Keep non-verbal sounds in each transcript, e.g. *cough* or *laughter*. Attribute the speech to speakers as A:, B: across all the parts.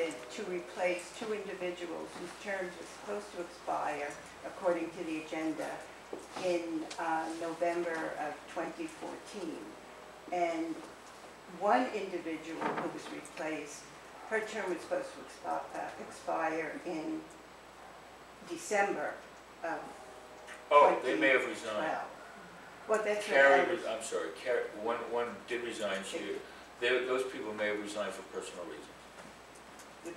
A: to replace two individuals whose terms are supposed to expire, according to the agenda, in uh, November of 2014. And one individual who was replaced, her term was supposed to expi- uh, expire in December of
B: Oh, they may have resigned.
A: 12. Well, that's what I
B: Carrie,
A: was-
B: res- I'm sorry, Carrie, one, one did resign, she, they, those people may have resigned for personal reasons.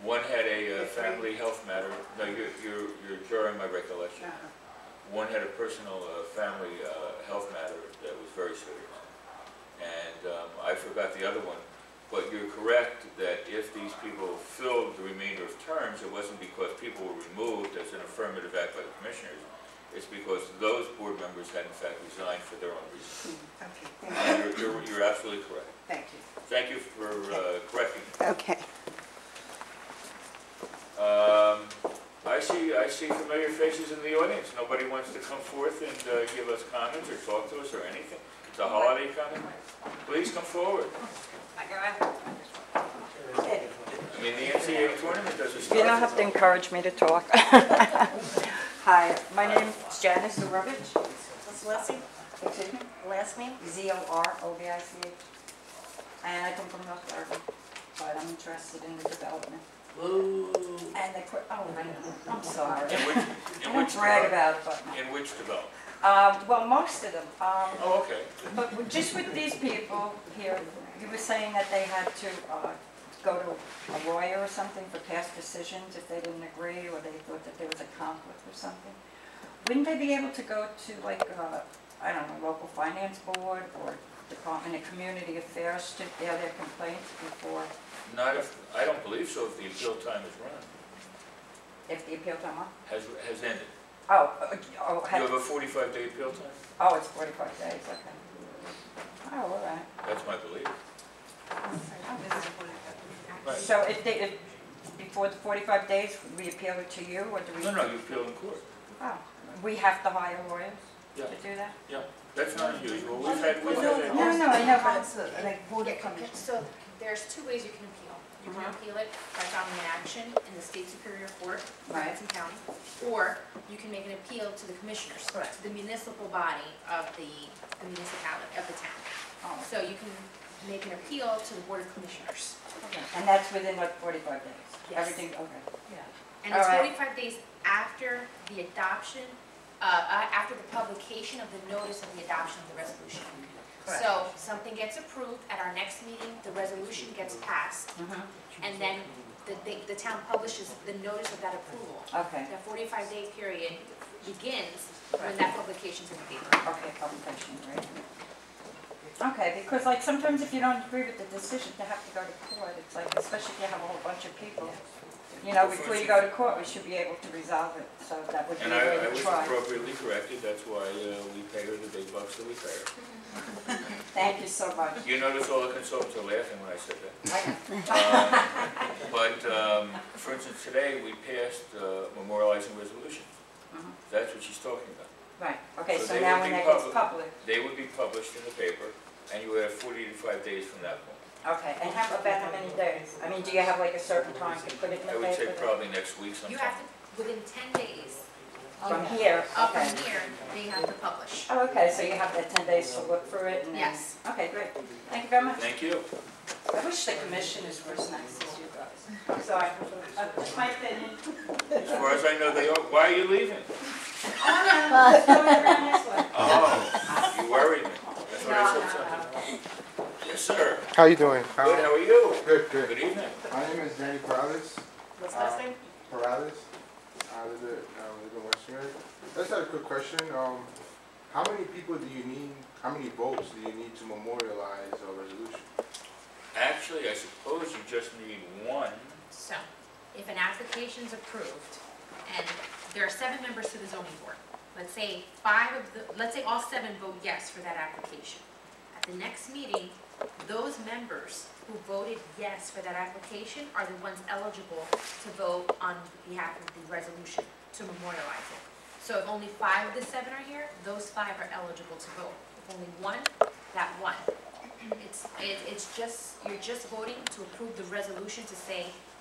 B: One had a uh,
A: The three-
B: family health matter, no, you're, you're, you're drawing my recollection.
A: uh-huh.
B: One had a personal, uh, family, uh, health matter that was very serious. And, um, I forgot the other one, but you're correct that if these people filled the remainder of terms, it wasn't because people were removed as an affirmative act by the commissioners. It's because those board members had in fact resigned for their own reasons.
A: Mm-hmm. Okay,
B: And
A: thank you.
B: you're, you're, you're absolutely correct.
A: Thank you.
B: Thank you for, uh, correcting. me.
A: Okay.
B: Um, I see, I see familiar faces in the audience. Nobody wants to come forth and uh, give us comments or talk to us or anything. It's a holiday coming. Please come forward. I mean, the NCAA tournament doesn't start.
C: You don't have to
B: until-
C: encourage me to talk. *laughs* Hi, my name's Janice Zurovich.
D: What's last name?
C: Excuse me?
D: Last name?
C: Z-O-R-O-V-I-C-H. And I come from North Darby, but I'm interested in the development. And the, que- oh, I- I'm
B: *laughs*
C: sorry.
B: In which,
C: *laughs* I
B: in
C: don't
B: which
C: brag
B: development?
C: about it, but,
B: In which development?
C: um, well, most of them. um,
B: Oh, okay.
C: But with- just with these people here, you were saying that they had to uh, go to a lawyer or something for past decisions if they didn't agree or they thought that there was a conflict or something. Wouldn't they be able to go to like, uh, I don't know, local finance board or Department of Community Affairs to air their complaints before,
B: Not if, I don't believe so if the appeal time is run,
C: if the appeal time, up?
B: has, has ended.
C: oh, uh, oh,
B: You
C: had-
B: have a forty-five day appeal time?
C: oh, it's 45 days, okay. Oh, all right.
B: That's my belief. Right.
C: So if they, if, before the 45 days, we appeal it to you, or do we?
B: No, no, you appeal in court.
C: Oh, we have to hire lawyers to
B: Yeah.
C: do that?
B: Yeah, that's not unusual. We've had, we've had.
C: No, no, I know, but-
E: Council, Like board of
F: Okay,
E: commissioners.
F: So there's two ways you can appeal. You can
C: Uh-huh.
F: appeal it by filing an action in the state superior court,
C: Right.
F: Hudson County, or you can make an appeal to the commissioners,
E: Correct.
F: to the municipal body of the the municipality, of the town.
C: Oh,
F: So you can make an appeal to the board of commissioners.
C: okay. And that's within what, 45 days?
F: Yes.
C: Everything, okay.
F: And it's
C: All right.
F: 45 days after the adoption, uh, uh, after the publication of the notice of the adoption of the resolution. So something gets approved at our next meeting, the resolution gets passed,
C: Mm-hmm.
F: and then the, the- the town publishes the notice of that approval.
C: Okay,
F: That 45-day period begins when that publication's in the paper.
C: okay, publication, right. Okay, because like sometimes if you don't agree with the decision, you have to go to court. It's like, especially if you have a whole bunch of people. You know, before you go to court, we should be able to resolve it, so that would be a
B: And I, I
C: way to
B: was
C: try.
B: appropriately corrected, that's why uh, we pay her the big bucks that we pay her.
C: Thank you so *laughs* much.
B: You notice all the consultants are laughing when I said that.
C: I-
B: Um, But, um, for instance, today, we passed uh, memorializing resolution.
C: Mhm.
B: That's what she's talking about.
C: Right, okay,
B: So
C: so
B: they
C: now
B: would
C: when
B: be
C: that gets
B: public.
C: public,
B: They would be published in the paper, and you would have forty to five days from that point.
C: okay, and how about how many days? I mean, do you have like a certain time to put it in the
B: I
C: paper?
B: would say probably next week sometime.
F: You have to, within 10 days
C: From here,
F: up
C: okay.
F: from here, they have to publish.
C: Oh, okay, so you have that 10 days to look through it and then...
F: Yes.
C: Okay, great. Thank you very much.
B: Thank you.
C: I wish the commissioners were as nice as you guys. Sorry, uh, that's my opinion.
B: As far as I know, they are, why are you leaving? Oh, you worried me. That's what I said something. Yes, sir.
G: How you doing?
B: Good, how are you?
G: Good, good.
B: Good evening.
G: My name is Danny Perales.
D: What's
G: Uh, Perales. I live in, uh, I live in West New York. I just had a quick question. Um, how many people do you need, how many votes do you need to memorialize a resolution?
B: Actually, I suppose you just need one.
F: So if an application's approved, and there are seven members to the zoning board, let's say five of the, let's say all seven vote yes for that application. At the next meeting, those members who voted yes for that application are the ones eligible to vote on behalf of the resolution to memorialize it. So if only five of the seven are here, those five are eligible to vote. If only one, that one. It's, it- it's just, you're just voting to approve the resolution to say